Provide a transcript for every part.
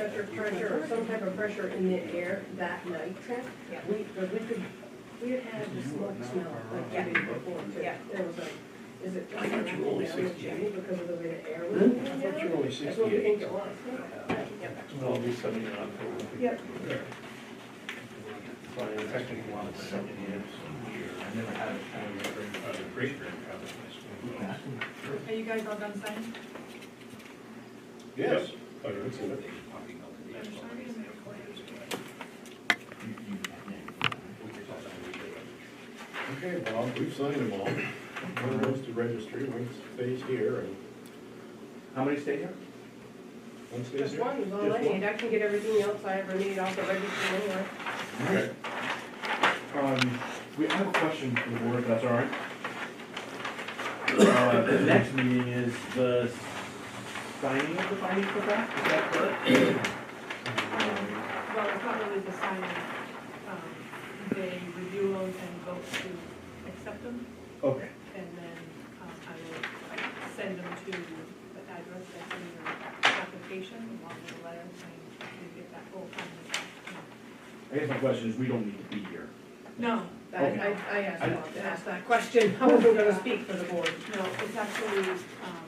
pressure, some type of pressure in the air that night, Yeah. we, but we could, we had had the smoke smell like the day before too. Yeah. It was like, is it I just thought you were wrapping only down the 68. chimney because of the way the air was? Hmm? coming I down? thought you were only That's what we think sixty-eight. it was. Well, it'll be something in October. Yep. So I technically want to set it in. I've never had a time where I've been- Are you guys all done signing? Yes. Oh, Okay, Bob, we've signed them all. One goes to registry, one stays here, and How many stay here? one stays Just here. one is all I Just one? need, I can get everything else I ever need off the register anyway. Okay. Um, we I have a question for the board, if that's all right. Uh, the next meeting is the signing of the findings for that, is that correct? Um, Well, it's not really the signing. Um, They review them and vote to accept them, Okay, and then um, I will like, send them to the address that's in your application, along with a letter saying you get that whole thing. I guess my question is, we don't need to be here. No, I, I, I asked Okay. Bob to ask that question, I wasn't gonna speak for the board. No, it's actually, um,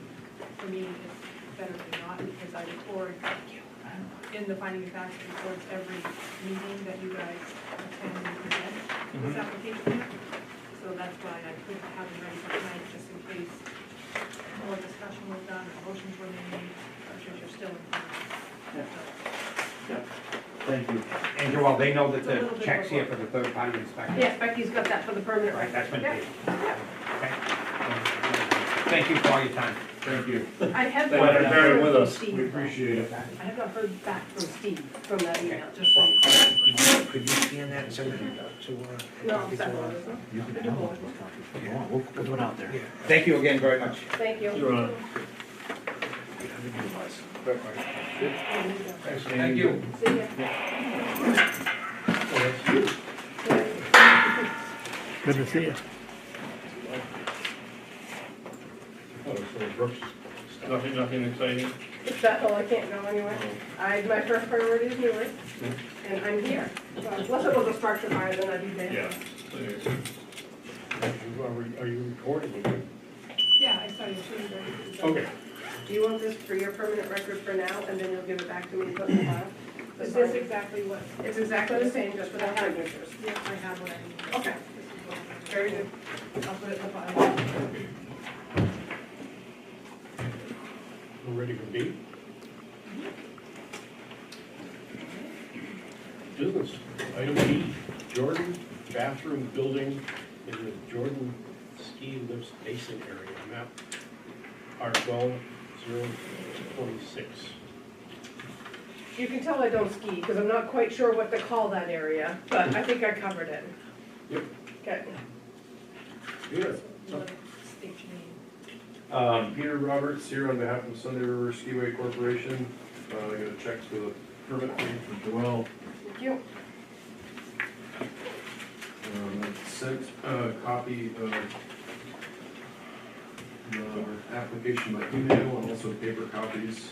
for me, it's better than not, because I record, in the finding of facts, records every meeting that you guys attend and present Mm-hmm. this application. So that's why I couldn't have it ready for tonight, just in case more discussion was done, or motions were made, I'm sure you're still in. Yeah. front. Thank you. Andrew, well, they know that the check's here for the third time inspection. Yeah, Becky's got that for the permanent record. Right, that's been paid. Yeah. Okay. Thank you for all your time. Thank you. I have Thank not you for heard bearing with from us. Steve. We appreciate it. I have not heard back from Steve from that email, just so. you- Could you- Could you scan that and send it to, uh? No, I'm sorry, You can download those copies if you want, we'll, we'll do it out there. Yeah. Thank you again very much. thank you. You're on. Thanks, Dan. Thank you. See ya. Oh, that's you. Good to see you. Oh, so Brooks, nothing, nothing exciting? It's that hole, I can't go anywhere. I, my first priority is Newark, and I'm here. So Unless it was a structure fire, then I'd be dead. Yeah. You Are re- are you recording again? Yeah, I started shooting. but- Okay. Do you want this for your permanent record for now, and then you'll give it back to me and put it in the file? Is this exactly what, It's exactly the same, just without signatures. yeah, I have what I need. Okay. This is what I Oh. need. Very good. I'll put it in the file. We're ready for B? Business, item B, Jordan bathroom building in the Jordan ski lifts basin area, map R twelve zero twenty-six. You can tell I don't ski, because I'm not quite sure what to call that area, but I think I covered it. Yep. Okay. Good. State your name. Um, Peter Roberts here on behalf of Sunday River Skiway Corporation. Uh, I got a check for the permit fee for Joel. Thank you. Um, I sent a copy of the application by email and also paper copies.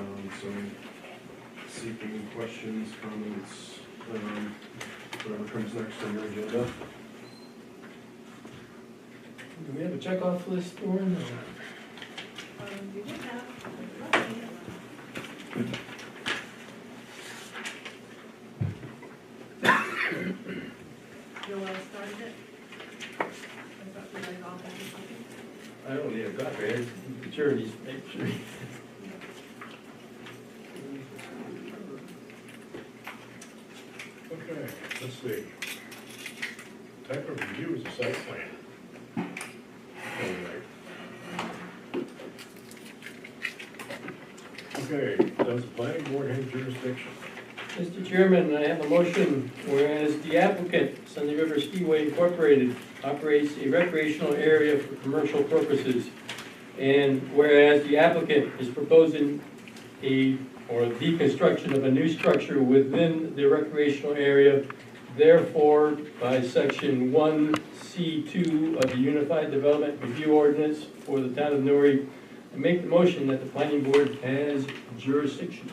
Um, so seeking questions, comments, um, whatever comes next on your agenda. Do we have a checkoff list, Norm? Um, you did have. Joel started it. I thought we were all having something. I don't need a copy, it's security's picture. Okay, let's see. Type of review is a site plan. Alright. Okay, does the planning board have jurisdiction? Mr. Chairman, I have a motion, whereas the applicant, Sunday River Skiway Incorporated, operates a recreational area for commercial purposes, and whereas the applicant is proposing a, or the construction of a new structure within the recreational area, therefore, by section one C two of the Unified Development Review Ordinance for the town of Newry, I make the motion that the planning board has jurisdiction.